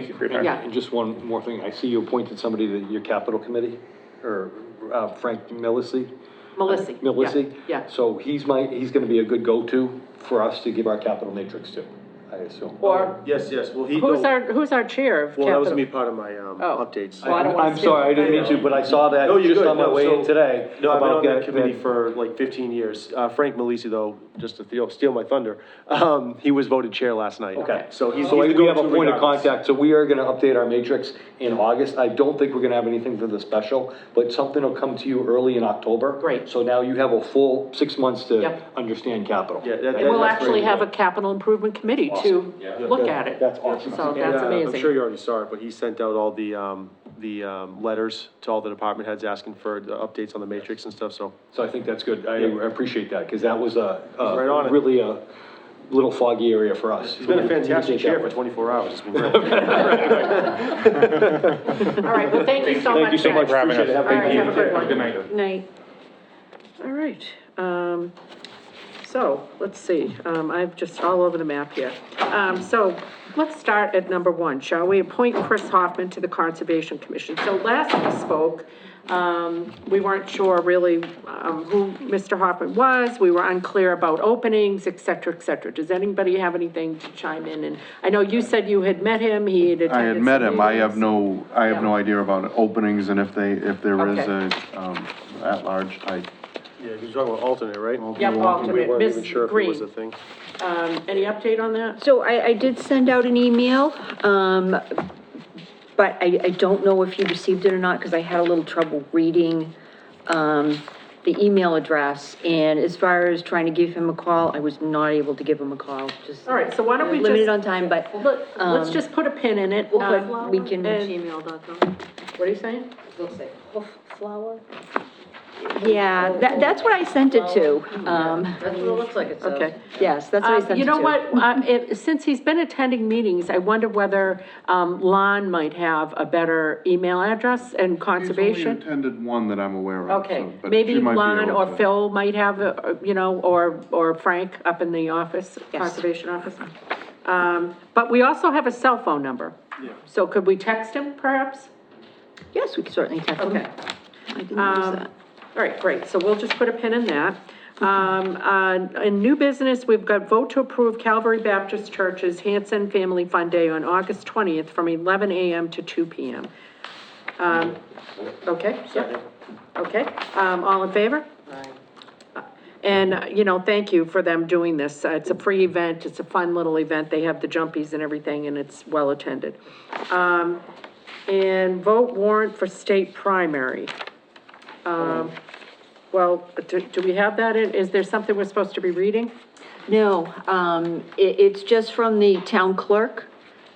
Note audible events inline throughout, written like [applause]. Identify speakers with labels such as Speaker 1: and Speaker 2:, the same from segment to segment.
Speaker 1: agreement.
Speaker 2: Yeah.
Speaker 3: And just one more thing, I see you appointed somebody to your capital committee, or uh, Frank Milisi?
Speaker 2: Melissy. yeah,
Speaker 3: Milisi?
Speaker 2: Yeah.
Speaker 3: Uh, So he's my, he's gonna be a good go-to for us to give our capital matrix to, I assume.
Speaker 2: Or,
Speaker 1: Yes, yes, well, he,
Speaker 4: Who's
Speaker 1: no,
Speaker 4: our, who's our chair of
Speaker 1: um, well, that was gonna be
Speaker 4: capital?
Speaker 1: part of my, um,
Speaker 4: Oh.
Speaker 1: updates.
Speaker 2: Well, I don't wanna
Speaker 3: I'm
Speaker 2: see
Speaker 3: sorry, I
Speaker 2: it.
Speaker 3: didn't mean to, but I saw that
Speaker 1: No, you're
Speaker 3: just
Speaker 1: good.
Speaker 3: on my
Speaker 1: No,
Speaker 3: way in
Speaker 1: so-
Speaker 3: today.
Speaker 1: No, I've been on
Speaker 3: about
Speaker 1: that committee for like fifteen years. Uh, Frank Malisi, though, just to steal- steal my thunder, um, he was voted chair last night.
Speaker 3: Okay.
Speaker 1: So he's, he's
Speaker 3: So
Speaker 1: the
Speaker 3: we have a
Speaker 1: go-to
Speaker 3: point of
Speaker 1: regardless.
Speaker 3: contact, so we are gonna update our matrix in August. I don't think we're gonna have anything for the special, but something will come to you early in October.
Speaker 2: Great.
Speaker 3: So now you have a full six months to
Speaker 2: Yep.
Speaker 3: understand capital.
Speaker 1: Yeah, that-
Speaker 2: and we'll
Speaker 1: that's
Speaker 2: actually
Speaker 1: great.
Speaker 2: have a capital improvement committee to look at it.
Speaker 3: That's awesome.
Speaker 2: So
Speaker 1: And,
Speaker 2: that's
Speaker 1: uh,
Speaker 2: amazing.
Speaker 1: I'm sure you already saw it, but he sent out all the, um, the, um, letters to all the department heads asking for the updates on the matrix and stuff, so.
Speaker 3: So I think that's good. I
Speaker 1: Yeah.
Speaker 3: appreciate that, because that was a, a
Speaker 1: Right on it.
Speaker 3: really a little foggy area for us.
Speaker 1: He's been a fantastic chair for twenty-four hours. It's been great.
Speaker 2: All right, well, thank you so much.
Speaker 3: Thank you so much.
Speaker 2: guys.
Speaker 1: having
Speaker 3: Appreciate it. Have
Speaker 1: us.
Speaker 3: a
Speaker 2: All
Speaker 3: good
Speaker 2: right, have a
Speaker 3: evening.
Speaker 2: good one.
Speaker 4: Night. All right, um, so, let's see, um, I've just all over the map here. Um, so, let's start at number one, shall we? Appoint Chris Hoffman to the Conservation Commission. So last we spoke, um, we weren't sure really, um, who Mr. Hoffman was, we were unclear about openings, et cetera, et cetera. Does anybody have anything to chime in? And I know you said you had met him, he had attended
Speaker 5: I had
Speaker 4: some
Speaker 5: met him, I have
Speaker 4: meetings.
Speaker 5: no, I have no
Speaker 4: Yeah.
Speaker 5: idea about openings and if they, if there is
Speaker 4: Okay.
Speaker 5: a, um, at-large, I,
Speaker 1: [laughs] Yeah, you're talking about alternate, right?
Speaker 2: Yep,
Speaker 1: We
Speaker 2: alternate,
Speaker 1: weren't
Speaker 2: Ms.
Speaker 1: even sure if it was a
Speaker 2: Green,
Speaker 1: thing.
Speaker 4: Um, any update on that?
Speaker 6: So I, I did send out an email, um, but I, I don't know if you received it or not, because I had a little trouble reading, um, the email address. And as far as trying to give him a call, I was not able to give him a call, just.
Speaker 4: All right, so why don't we just?
Speaker 6: Limited on time, but.
Speaker 4: Let, let's
Speaker 6: um,
Speaker 4: just put a pin in it.
Speaker 6: We'll
Speaker 4: um,
Speaker 6: put, we can.
Speaker 4: and- What are you saying?
Speaker 6: Flower? Yeah, that, that's what I sent it to, um,
Speaker 7: That's what it looks like, it says.
Speaker 4: Okay.
Speaker 6: yes, that's what I
Speaker 4: Um,
Speaker 6: sent it to.
Speaker 4: You know what, uh, if, since he's been attending meetings, I wonder whether, um, Lon might have a better email address and
Speaker 5: He's only
Speaker 4: conservation?
Speaker 5: attended one that I'm aware of.
Speaker 4: Okay,
Speaker 5: so- but
Speaker 4: maybe
Speaker 5: she might be
Speaker 4: Lon
Speaker 5: able
Speaker 4: or
Speaker 5: to-
Speaker 4: Phil might have, uh, you know, or, or Frank up in the office, conservation office. Um, but we also have a cell phone number. Yeah. So could we text him perhaps?
Speaker 6: Yes, we can certainly text him.
Speaker 4: Okay. Um,
Speaker 6: I can use that.
Speaker 4: All right, great, so we'll just put a pin in that. Um, uh, in new business, we've got vote to approve Calvary Baptist Church's Hanson Family Fun Day on August twentieth from eleven AM to two PM. Um, okay, yeah, okay, um, all in favor? And, uh, you know, thank you for them doing this. Uh, It's a free event, it's a fun little event. They have the jumpies and everything, and it's well-attended. Um, and vote warrant for state primary. Um, well, do, do we have that in, is there something we're supposed to be reading?
Speaker 6: No, um, it, it's just from the town clerk,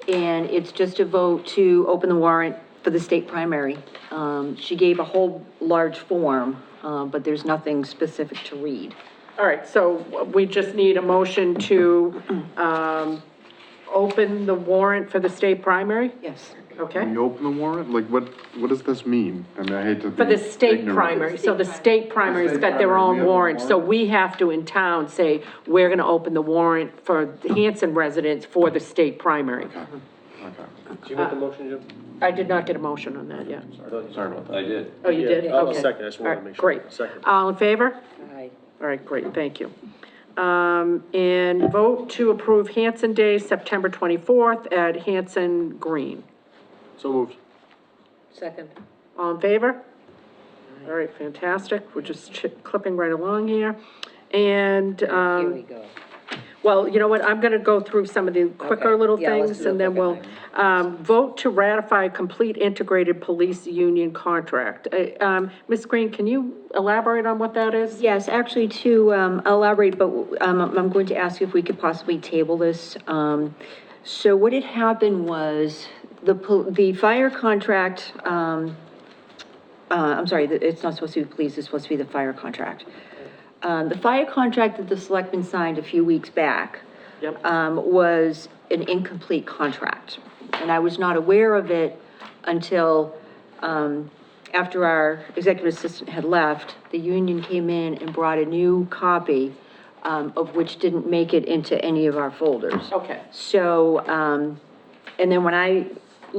Speaker 6: and it's just a vote to open the warrant for the state primary. Um, she gave a whole large form, uh, but there's nothing specific to read.
Speaker 4: All right, so we just need a motion to, um, open the warrant for the state primary?
Speaker 6: Yes.
Speaker 4: Okay?
Speaker 5: You open the warrant, like, what, what does this mean? I mean, I hate to be
Speaker 4: For the state
Speaker 5: ignorant.
Speaker 4: primary, so the state primary's got their
Speaker 5: primary,
Speaker 4: own
Speaker 5: we have a
Speaker 4: warrant, so
Speaker 5: warrant.
Speaker 4: we have to in town say, we're gonna open the warrant for the Hanson residents for the state primary.
Speaker 5: Okay,
Speaker 1: Did you make the motion, Jim?
Speaker 4: I did not get a motion on that yet.
Speaker 5: Sorry about that.
Speaker 8: I did.
Speaker 4: Oh, you did?
Speaker 1: Yeah, I'll
Speaker 4: Okay.
Speaker 1: second. I just wanted
Speaker 4: All
Speaker 1: to
Speaker 4: right,
Speaker 1: make sure.
Speaker 4: Great.
Speaker 1: Second.
Speaker 4: All in favor?
Speaker 7: Aye.
Speaker 4: All right, great, thank you. Um, and vote to approve Hanson Day, September twenty-fourth at Hanson Green.
Speaker 1: So moved.
Speaker 7: Second.
Speaker 4: All in favor? All right, fantastic, we're just chi- clipping right along here. And,
Speaker 7: Here
Speaker 4: um,
Speaker 7: we go.
Speaker 4: Well, you know what, I'm gonna go through some of the quicker
Speaker 7: Okay,
Speaker 4: little
Speaker 7: yeah, let's
Speaker 4: things,
Speaker 7: do
Speaker 4: and
Speaker 7: the
Speaker 4: then
Speaker 7: quicker
Speaker 4: we'll, um, vote to ratify complete integrated police union contract. Uh, um, Ms. Green, can you elaborate on what that is?
Speaker 6: Yes, actually to um, elaborate, but um, I'm going to ask you if we could possibly table this. Um, So what had happened was, the, pol- the fire contract, um, uh, I'm sorry, it's not supposed to be police, it's supposed to be the fire contract. Um, The fire contract that the selectmen signed a few weeks back
Speaker 4: Yep.
Speaker 6: um, was an incomplete contract. And I was not aware of it until, um, after our executive assistant had left, the union came in and brought a new copy, um, of which didn't make it into any of our folders.
Speaker 4: Okay.
Speaker 6: So, um, and then when I